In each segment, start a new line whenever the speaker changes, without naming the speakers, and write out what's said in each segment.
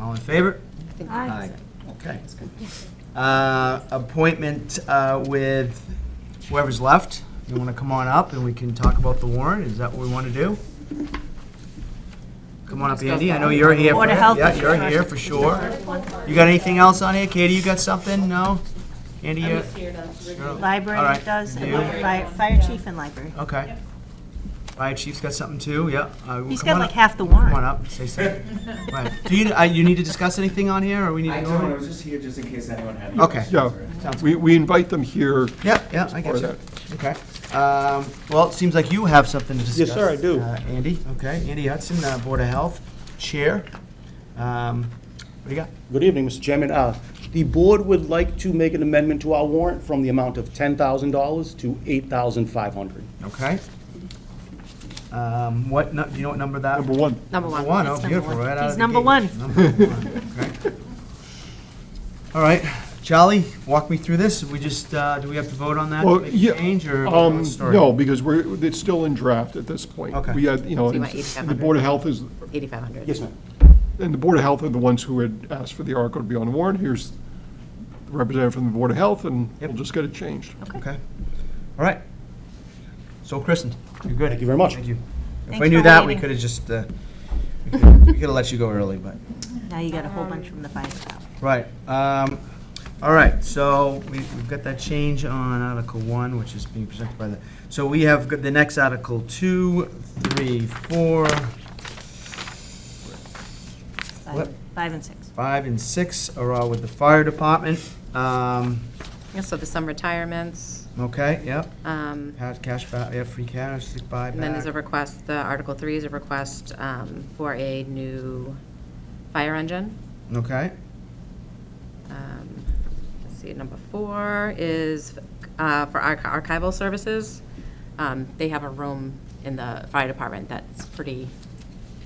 All in favor?
Aye.
Okay. Uh, Appointment uh, with whoever's left. You want to come on up and we can talk about the warrant? Is that what we want to do? Come on up, Andy. I know you're here. for-
Board of Health.
Yeah, you're here for sure. You got anything else on here? Katie, you got something? No? Andy, you? All
Library
right.
does, and
You? Oh,
fire, fire chief and library.
Okay. Fire chief's got something too, yeah. Uh, well,
He's
come
got
on
like
up.
half the
Come on
warrant.
up, say something. Right. Do you, uh, you need to discuss anything on here, or we need to
I
go?
don't, I
on?
was just here just in case anyone had. any
Okay.
questions.
Yeah,
Sounds
we, we invite them here.
Yeah, yeah, I get
Or
you. Okay. Um, Well, it seems like you have something to discuss.
Yes, sir, I do.
uh, Andy, okay, Andy Hudson, uh, Board of Health Chair. Um, What do you got?
Good evening, Mr. Chairman. Uh, The board would like to make an amendment to our warrant from the amount of $10,000 to $8,500.
Okay. Um, What, nu- do you know what number that?
Number one,
Number one.
One, oh,
It's number
beautiful,
one.
right out of
He's
the
number
gate.
one.
Number one, okay. All right, Charlie, walk me through this. We just, uh, do we have to vote on that? to
Well,
make a
yeah,
Change or?
um,
what's the story?
no, because we're, it's still in draft at this point.
Okay.
We had, you know,
So you want
it's- the
8,500.
Board of Health is,
8,500.
Yes, ma'am.
and the Board of Health are the ones who had asked for the article to be on the warrant. Here's the representative from the Board of Health, and we'll
Yep.
just get it changed.
Okay, all right. So christened, you're good.
Thank you very much.
Thank you. If
Thanks
we knew
for
that, we
waiting.
could have just, uh, we could have let you go early, but,
Now you got a whole bunch from the fire department.
right. um, All right, so we- we've got that change on Article 1, which is being presented by the, so we have got the next Article 2, 3, 4, What?
Five- Five and six.
5, and 6 are all with the fire department. Um,
Yeah, so there's some retirements,
Okay, yep,
um,
Cash- cash, ba- yeah, free cash, sick buyback.
and then there's a request, the Article 3 is a request um, for a new fire engine.
Okay,
Um, Let's see, number 4 is uh, for arch- archival services. Um, They have a room in the fire department that's pretty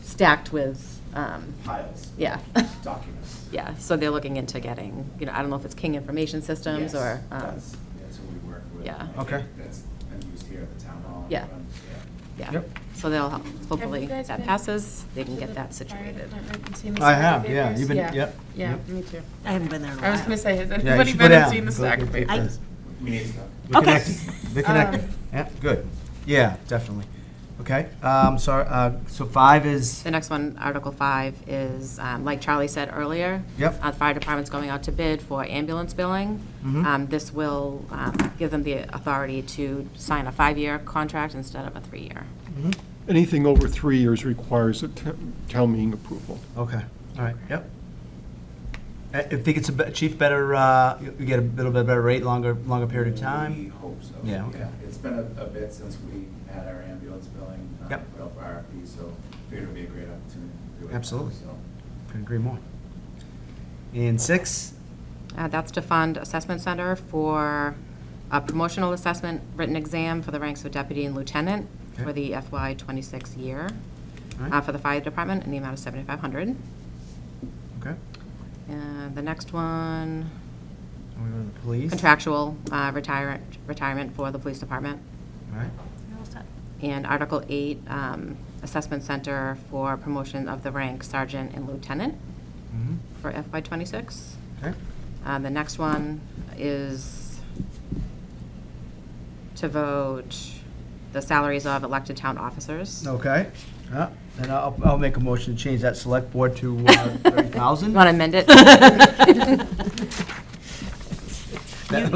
stacked with, um,
Piles,
yeah,
documents.
yeah. So they're looking into getting, you know, I don't know if it's King Information Systems
Yes,
or. um,
That's, that's what we work with.
yeah.
I think
Okay.
That's, been used here at the town hall.
Yeah.
Um, yeah.
Yeah,
Yep.
so they'll, help. hopefully,
you guys
that
been
passes, they can
to
get
the
that
fire
situated.
department and seen the
I
stack of
have, yeah,
papers?
you've been, yep.
Yeah,
yep.
me too.
I haven't been there in a while.
I was gonna say, has
Yeah, you
anybody
should go
been and
down.
seen the
Go
stack
get-
of
get
papers?
this.
We need to go.
They're
Okay. Uh,
connected. They're connected. Yeah, good. Yeah, definitely. Okay, um, sorry, uh, so five is,
The next one, Article 5, is, um, like Charlie said earlier.
Yep.
uh, The fire department's going out to bid for ambulance billing.
Mm-hmm.
Um, This will um, give them the authority to sign a five-year contract instead of a three-year.
Anything over three years requires a t- town meeting approval.
okay, all right, yep. I, I think it's a be- chief better, uh, you you get a little bit better rate, longer, longer period of
We
time.
hope so.
Yeah, okay.
It's been a, a bit since we had our ambulance billing. uh,
Yep.
Put up RFP, so figured it'd be a great opportunity. to do it.
Absolutely.
So,
Couldn't agree more. And six,
Uh, That's to fund assessment center for a promotional assessment written exam for the ranks of deputy and lieutenant for
Okay.
the FY '26 year
Alright.
uh, for the fire department in the amount of 7,500.
okay,
And Uh, the next one,
and we go to the police.
contractual uh, retirement, retirement for the police department.
All right,
And Article 8, um, assessment center for promotion of the rank sergeant and lieutenant
mhm,
for FY '26.
okay,
Uh, The next one is to vote the salaries of elected town officers.
okay. Yeah, and I'll, I'll make a motion to change that select board to, uh, thirty thousand.
Want to amend it?
That'll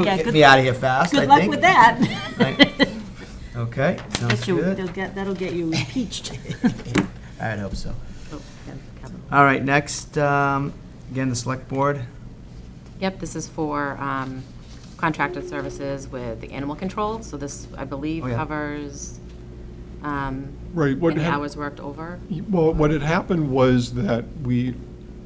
Yeah,
get
good-
me out of here fast, I think.
Good luck with that.
Right. Okay, sounds
Get you-
good.
they'll get- That'll get you impeached.
I'd hope so.
Oh, yeah, capital.
All right, next, um, again, the select board.
Yep, this is for um, contracted services with the animal control, so this, I believe,
Oh, yeah.
covers um,
Right, what
any
hap-
hours worked over.
Well, what had happened was that we,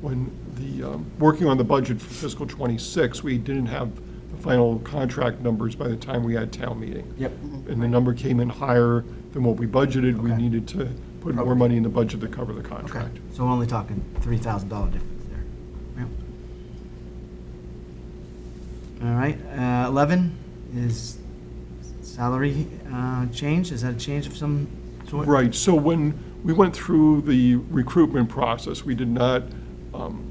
when the, um, working on the budget for fiscal '26, we didn't have the final contract numbers by the time we had town meeting.
Yep.
And the number came in higher than what we budgeted. We
Okay.
needed to put more money in the budget to cover the contract.
So we're only talking three thousand dollar difference there. Yep. All right, uh, eleven is salary, uh, change, is that a change of some sort?
Right, so when we went through the recruitment process, we did not um,